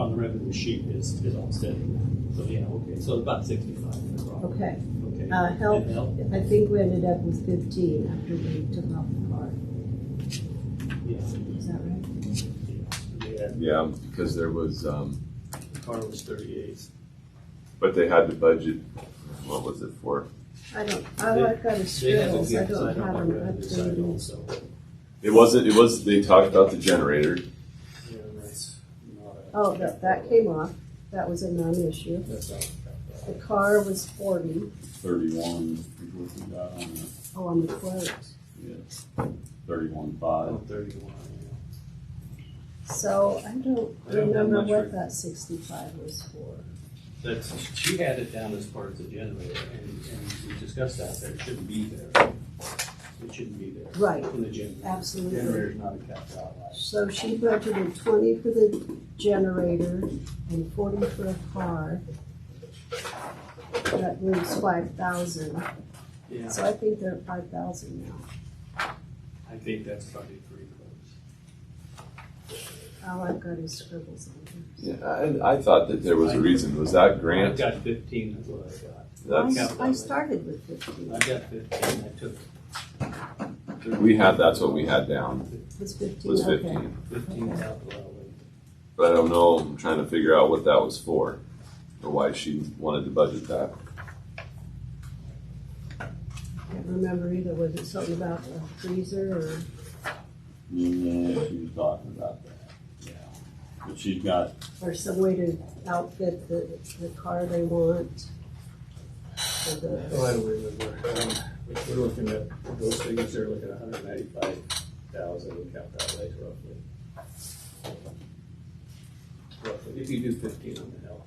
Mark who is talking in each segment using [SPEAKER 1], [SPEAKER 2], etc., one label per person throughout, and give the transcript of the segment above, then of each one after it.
[SPEAKER 1] on the revenue sheet is, is all steady. So, yeah, okay, so about sixty-five. no problem.
[SPEAKER 2] Okay,
[SPEAKER 1] Okay.
[SPEAKER 2] uh, health,
[SPEAKER 1] And health,
[SPEAKER 2] I think we ended up with fifteen after we took off the car,
[SPEAKER 1] yeah,
[SPEAKER 2] is that right?
[SPEAKER 1] yeah,
[SPEAKER 3] Yeah, because there was, um,
[SPEAKER 1] the car was thirty-eight.
[SPEAKER 3] but they had to budget, what was it for?
[SPEAKER 2] I don't, I, I've got a
[SPEAKER 1] They have
[SPEAKER 2] scribble,
[SPEAKER 1] it,
[SPEAKER 2] so I
[SPEAKER 1] yeah, so I
[SPEAKER 2] don't
[SPEAKER 1] don't have
[SPEAKER 2] have an
[SPEAKER 1] revenue side
[SPEAKER 2] updated.
[SPEAKER 1] also.
[SPEAKER 3] It wasn't, it was, they talked about the generator.
[SPEAKER 1] Yeah, that's not a-
[SPEAKER 2] Oh, that, that came off, that was a non-issue.
[SPEAKER 1] That's not-
[SPEAKER 2] The car was forty,
[SPEAKER 4] thirty-one, is what we got on it,
[SPEAKER 2] oh, on the quote.
[SPEAKER 4] yes, thirty-one five.
[SPEAKER 1] Oh, thirty-one, yeah.
[SPEAKER 2] So I don't
[SPEAKER 1] I don't have
[SPEAKER 2] remember
[SPEAKER 1] much
[SPEAKER 2] what
[SPEAKER 1] for-
[SPEAKER 2] that sixty-five was for.
[SPEAKER 1] That's, she had it down as part of the generator, and, and we discussed that, there shouldn't be there. It shouldn't be there.
[SPEAKER 2] Right.
[SPEAKER 1] In the generator.
[SPEAKER 2] Absolutely.
[SPEAKER 1] Generator's not a capped out light.
[SPEAKER 2] So she budgeted twenty for the generator and forty for a car. That leaves five thousand,
[SPEAKER 1] Yeah,
[SPEAKER 2] so I think they're at five thousand now.
[SPEAKER 1] I think that's probably pretty close.
[SPEAKER 2] All I've got is scribbles on here.
[SPEAKER 3] Yeah, I, I thought that there was a reason, was that
[SPEAKER 1] I've
[SPEAKER 3] grant?
[SPEAKER 1] got fifteen, that's what I've got.
[SPEAKER 3] That's,
[SPEAKER 2] I I started with fifteen,
[SPEAKER 1] I've got fifteen, I took
[SPEAKER 3] we had, that's what we had down,
[SPEAKER 2] was fifteen,
[SPEAKER 3] was
[SPEAKER 2] okay.
[SPEAKER 3] fifteen.
[SPEAKER 1] fifteen out the way.
[SPEAKER 3] But I don't know, I'm trying to figure out what that was for, or why she wanted to budget that.
[SPEAKER 2] Can't remember either, was it something about the freezer or?
[SPEAKER 4] Yeah, she was talking about that, yeah. But she's got,
[SPEAKER 2] or some way to outfit the, the car they want. Or the-
[SPEAKER 1] Oh, I don't remember. Um, We're looking at, those figures there, looking at hundred ninety-five thousand in capped outlays roughly. Roughly, if you do fifteen on the hill.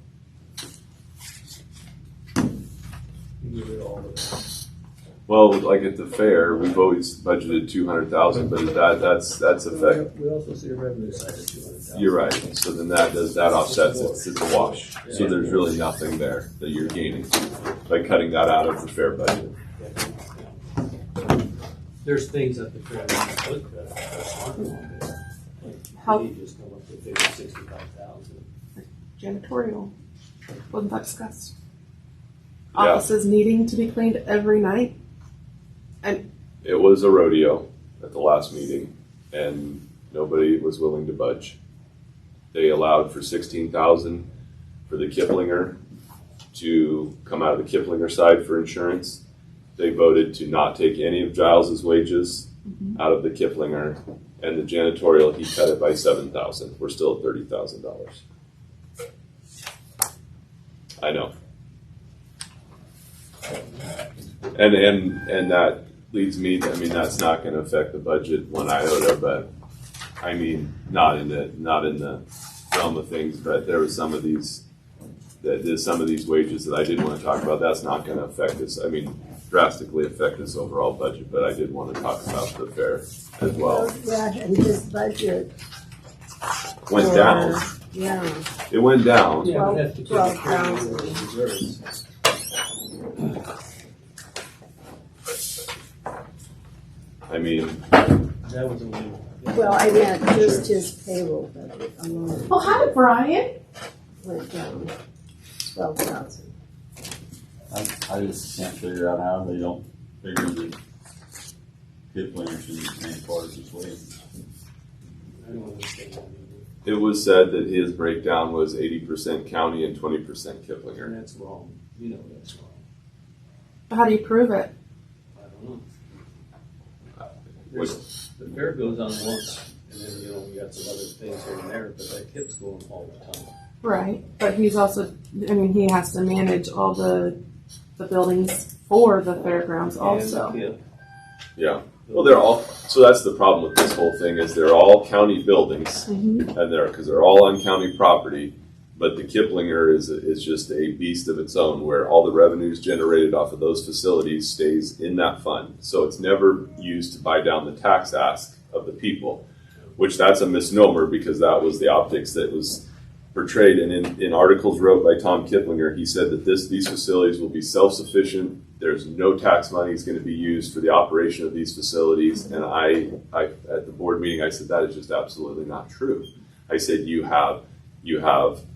[SPEAKER 1] You give it all the
[SPEAKER 3] Well, like at the fair, we've always budgeted two hundred thousand, but that, that's, that's effect,
[SPEAKER 1] We also see a revenue side of two hundred thousand.
[SPEAKER 3] you're right. So then that does, that offsets, it. it's a wash. So there's really nothing there that you're gaining by cutting that out of the fair budget.
[SPEAKER 1] There's things at the fair that you could cut out that aren't on there.
[SPEAKER 5] How-
[SPEAKER 1] Like, you just come up to figure sixty-five thousand.
[SPEAKER 5] janitorial. Wasn't that discussed?
[SPEAKER 3] Yeah.
[SPEAKER 5] Offices needing to be cleaned every night.
[SPEAKER 3] It was a rodeo at the last meeting, and nobody was willing to budge. They allowed for sixteen thousand for the Kiplinger to come out of the Kiplinger side for insurance. They voted to not take any of Giles's wages out of the Kiplinger, and the janitorial he cut it by seven thousand. We're still at thirty thousand dollars. I know. And and and that leads me, I mean, that's not gonna affect the budget one iota, but, I mean, not in the, not in the realm of things, but there were some of these, that, there's some of these wages that I did wanna talk about, that's not gonna affect us, I mean, drastically affect this overall budget, but I did wanna talk about the fair as well.
[SPEAKER 2] Yeah, and his budget.
[SPEAKER 3] Went
[SPEAKER 2] for- uh,
[SPEAKER 3] down,
[SPEAKER 2] Yeah,
[SPEAKER 3] it went down,
[SPEAKER 1] Yeah, but that's because
[SPEAKER 2] Twelve-
[SPEAKER 1] it
[SPEAKER 2] twelve
[SPEAKER 1] carries over the reserves.
[SPEAKER 3] I mean,
[SPEAKER 1] That was a little.
[SPEAKER 2] well, I meant just his payroll budget alone
[SPEAKER 5] Oh, hi, Brian.
[SPEAKER 2] went down twelve thousand.
[SPEAKER 4] I, I just can't figure out how they don't figure that Kipling should be paying part of his wages.
[SPEAKER 1] I don't understand. that either.
[SPEAKER 3] it was said that his breakdown was eighty percent county and twenty percent Kiplinger.
[SPEAKER 1] And that's wrong. You know that's wrong.
[SPEAKER 5] How do you prove it?
[SPEAKER 1] I don't know. There's- The fair goes on once, and then, you know, you got some other things here and there, but that kip's going all the time.
[SPEAKER 5] Right, but he's also. I mean, he has to manage all the the buildings for the fairgrounds also.
[SPEAKER 1] And the kip.
[SPEAKER 3] Yeah. Well, they're all. So that's the problem with this whole thing is they're all county buildings,
[SPEAKER 5] Mhm.
[SPEAKER 3] and uh, they're because they're all on county property. But the Kiplinger is is just a beast of its own, where all the revenues generated off of those facilities stays in that fund. So it's never used to buy down the tax ask of the people, which that's a misnomer because that was the optics that was portrayed. And in, in articles wrote by Tom Kiplinger, he said that this these facilities will be self sufficient there's no tax money is going to be used for the operation of these facilities. And I, I, at the board meeting, I said, that is just absolutely not true. I said, you have, you have